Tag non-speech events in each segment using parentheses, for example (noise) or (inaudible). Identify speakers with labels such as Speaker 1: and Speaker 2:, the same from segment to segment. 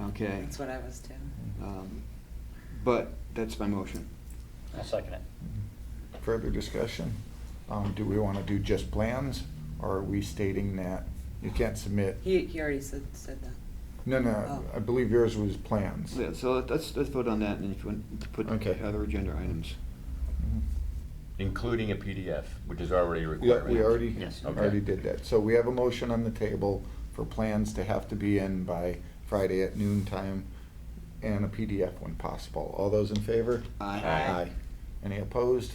Speaker 1: Okay.
Speaker 2: Mm. That's what I was too.
Speaker 1: Um, But that's my motion.
Speaker 3: I'll second it.
Speaker 4: Further discussion? Um, do we wanna do just plans, or are we stating that you can't submit?
Speaker 2: He, he already said, said that.
Speaker 4: No, no, I believe yours was plans.
Speaker 1: Yeah, so let- let's, let's vote on that and if you want to put
Speaker 4: Okay.
Speaker 1: other agenda items.
Speaker 4: Mm-hmm.
Speaker 5: Including a PDF, which is already a
Speaker 4: Yeah,
Speaker 5: requirement.
Speaker 4: we already,
Speaker 3: Yes.
Speaker 4: already
Speaker 5: Okay.
Speaker 4: did that. So we have a motion on the table for plans to have to be in by Friday at noon time and a PDF when possible. All those in favor?
Speaker 1: Aye.
Speaker 5: Aye.
Speaker 4: Any opposed?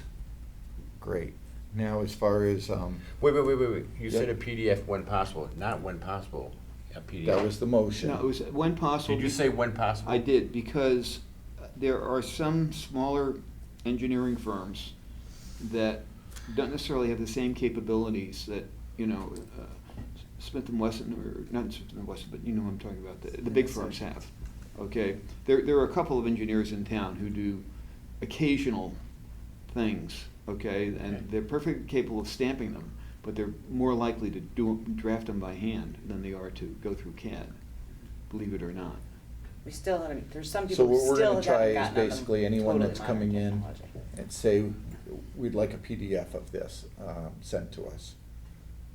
Speaker 4: Great. Now, as far as, um,
Speaker 5: Wait, wait, wait, wait, wait. You
Speaker 4: Yeah.
Speaker 5: said a PDF when possible, not when possible, a PDF.
Speaker 4: that was the motion.
Speaker 1: No, it was when possible.
Speaker 5: Did you say when possible?
Speaker 1: I did, because there are some smaller engineering firms that don't necessarily have the same capabilities that, you know, uh, Smith and Wesson, or not Smith and Wesson, but you know what I'm talking about, the, the big firms have, okay? There, there are a couple of engineers in town who do occasional things, okay?
Speaker 5: Okay.
Speaker 1: And they're perfectly capable of stamping them, but they're more likely to do, draft them by hand than they are to go through CAD, believe it or not.
Speaker 2: We still haven't, there's some
Speaker 4: So
Speaker 2: people
Speaker 4: what
Speaker 2: who
Speaker 4: we're
Speaker 2: still
Speaker 4: gonna
Speaker 2: haven't
Speaker 4: try
Speaker 2: gotten
Speaker 4: is
Speaker 2: on them
Speaker 4: basically anyone
Speaker 2: totally
Speaker 4: that's
Speaker 2: modern
Speaker 4: coming in
Speaker 2: technology.
Speaker 4: and say, we'd like a PDF of this um, sent to us.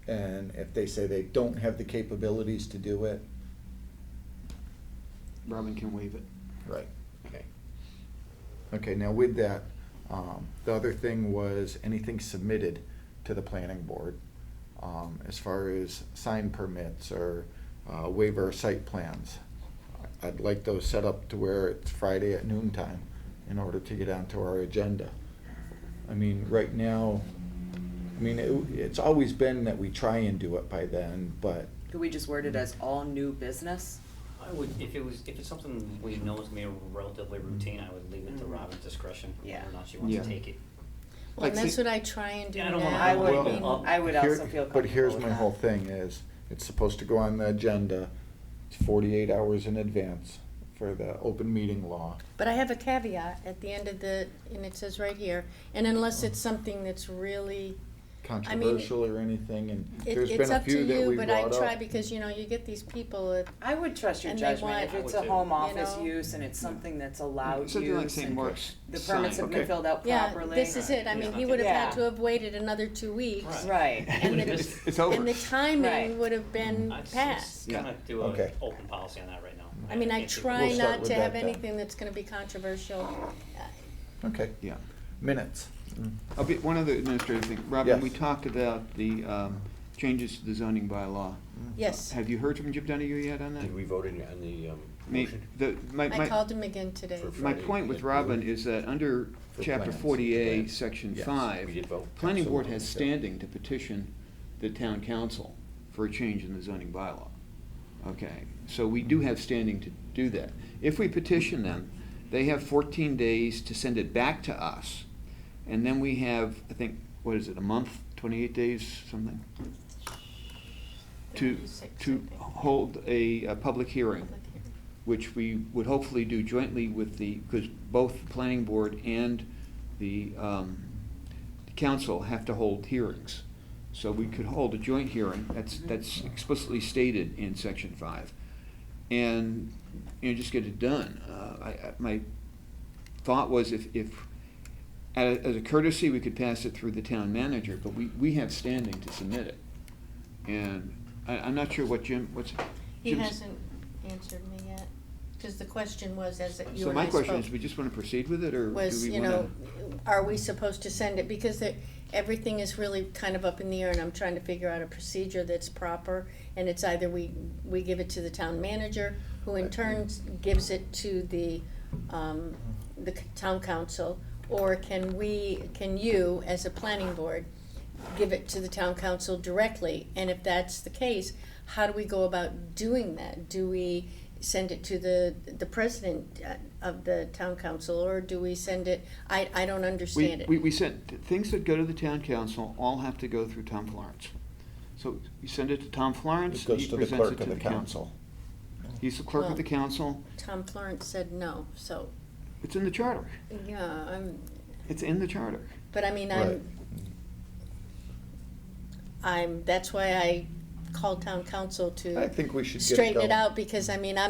Speaker 4: And if they say they don't have the capabilities to do it,
Speaker 1: Robin can waive it.
Speaker 4: right.
Speaker 5: Okay.
Speaker 4: Okay, now with that, um, the other thing was anything submitted to the planning board, um, as far as sign permits or, uh, waiver of site plans. I'd like those set up to where it's Friday at noon time in order to get onto our agenda. I mean, right now, I mean, it, it's always been that we try and do it by then, but
Speaker 2: Could we just word it as all new business?
Speaker 3: I would, if it was, if it's something we know is gonna be relatively routine, I would leave it to
Speaker 6: Mm-hmm.
Speaker 2: Mhm.
Speaker 3: Robin's discretion, whether
Speaker 2: Yeah.
Speaker 3: or not she wants
Speaker 1: Yeah.
Speaker 3: to take it.
Speaker 6: Well,
Speaker 1: Like,
Speaker 6: and that's
Speaker 1: see-
Speaker 6: what I try and do
Speaker 3: Yeah, I don't wanna-
Speaker 6: now.
Speaker 2: I would,
Speaker 4: Oh, Well,
Speaker 2: I would also
Speaker 4: Here-
Speaker 2: feel
Speaker 4: But here's
Speaker 2: comfortable
Speaker 4: my
Speaker 2: with
Speaker 4: whole
Speaker 2: that.
Speaker 4: thing is, it's supposed to go on the agenda forty-eight hours in advance for the open meeting law.
Speaker 6: But I have a caveat at the end of the, and it says right here, and unless it's something that's really,
Speaker 4: Controversial or anything, and
Speaker 6: it,
Speaker 4: there's
Speaker 6: it's
Speaker 4: been a
Speaker 6: up to
Speaker 4: few that
Speaker 6: you,
Speaker 4: we
Speaker 6: but I
Speaker 4: brought
Speaker 6: try
Speaker 4: up.
Speaker 6: because, you know, you get these people that,
Speaker 2: I would trust your
Speaker 6: And they want-
Speaker 2: judgment if
Speaker 6: I
Speaker 2: it's
Speaker 3: would
Speaker 2: a
Speaker 3: too.
Speaker 2: home
Speaker 6: You
Speaker 2: office
Speaker 6: know? Mm.
Speaker 2: use and it's something that's allowed
Speaker 1: Something like
Speaker 2: use
Speaker 1: St.
Speaker 2: and
Speaker 1: Mark's
Speaker 2: The
Speaker 1: sign.
Speaker 2: permits have
Speaker 1: Okay.
Speaker 2: been filled out
Speaker 6: yeah,
Speaker 2: properly.
Speaker 6: this is it. I
Speaker 3: Right.
Speaker 6: mean,
Speaker 3: Yeah.
Speaker 6: he would have had
Speaker 2: Yeah.
Speaker 6: to have waited another two weeks.
Speaker 3: Right.
Speaker 2: Right.
Speaker 1: (laughs)
Speaker 6: And the,
Speaker 3: It's-
Speaker 1: it's over.
Speaker 6: and the timing
Speaker 2: Right.
Speaker 6: would have been
Speaker 3: I'd s-
Speaker 6: passed.
Speaker 1: Yeah.
Speaker 3: Mm. Kinda do an
Speaker 4: Okay.
Speaker 3: open policy on that right now.
Speaker 6: I mean, I
Speaker 3: can't do-
Speaker 6: try
Speaker 4: We'll start
Speaker 6: not
Speaker 4: with
Speaker 6: to
Speaker 4: that
Speaker 6: have
Speaker 4: then.
Speaker 6: anything that's gonna be controversial. Uh,
Speaker 4: Okay,
Speaker 1: Yeah.
Speaker 4: minutes.
Speaker 1: A bit, one other administrative thing. Robin,
Speaker 4: Yes.
Speaker 1: we talked about the um, changes to the zoning bylaw.
Speaker 6: Yes,
Speaker 1: Have you heard from Jim Donahue yet on that?
Speaker 5: Did we vote in, on the, um,
Speaker 1: Me-
Speaker 5: motion?
Speaker 1: the- my-
Speaker 6: I
Speaker 1: my-
Speaker 6: called him again today.
Speaker 5: For-
Speaker 1: My point with Robin is that under
Speaker 4: For
Speaker 1: chapter
Speaker 4: plans.
Speaker 1: forty-eight,
Speaker 4: Plans.
Speaker 1: section
Speaker 4: Yes.
Speaker 1: five,
Speaker 5: We did vote.
Speaker 1: planning board
Speaker 4: Absolutely.
Speaker 1: has standing to petition the town council for a change in the zoning bylaw. Okay, so we do have standing to do that. If we petition them, they have fourteen days to send it back to us. And then we have, I think, what is it, a month, twenty-eight days, something, to,
Speaker 6: 36,
Speaker 1: to
Speaker 6: I think.
Speaker 1: hold a, a public hearing
Speaker 6: Public hearing.
Speaker 1: which we would hopefully do jointly with the, because both the planning board and the um, council have to hold hearings. So we could hold a joint hearing, that's, that's explicitly stated in section five. And, you know, just get it done. Uh, I, I, my thought was if, if, as as a courtesy, we could pass it through the town manager, but we, we have standing to submit it. And I, I'm not sure what Jim, what's.
Speaker 6: He
Speaker 1: Jim's-
Speaker 6: hasn't answered me yet, because the question was, as that you
Speaker 1: So
Speaker 6: and
Speaker 1: my
Speaker 6: I
Speaker 1: question is,
Speaker 6: spoke,
Speaker 1: we just want to proceed with it, or do we want to?
Speaker 6: was, you know, are we supposed to send it? Because the- everything is really kind of up in the air, and I'm trying to figure out a procedure that's proper. And it's either we, we give it to the town manager, who in turn gives it to the, um, the c- town council, or can we, can you, as a planning board, give it to the town council directly? And if that's the case, how do we go about doing that? Do we send it to the, the president uh, of the town council, or do we send it, I, I don't understand
Speaker 1: We,
Speaker 6: it.
Speaker 1: we, we sent, things that go to the town council all have to go through Tom Florence. So you send it to Tom
Speaker 4: It
Speaker 1: Florence, he
Speaker 4: goes to the
Speaker 1: presents
Speaker 4: clerk
Speaker 1: it to
Speaker 4: of
Speaker 1: the council. He's the clerk of
Speaker 6: Well-
Speaker 1: the council,
Speaker 6: Tom Florence said no, so,
Speaker 1: it's in the charter,
Speaker 6: yeah, I'm,
Speaker 1: it's in the charter.
Speaker 6: but I mean,
Speaker 4: Right.
Speaker 6: I'm, I'm, that's why I called town council
Speaker 4: I
Speaker 6: to
Speaker 4: think we should get it
Speaker 6: straighten it
Speaker 4: going.
Speaker 6: out, because I mean, I'm.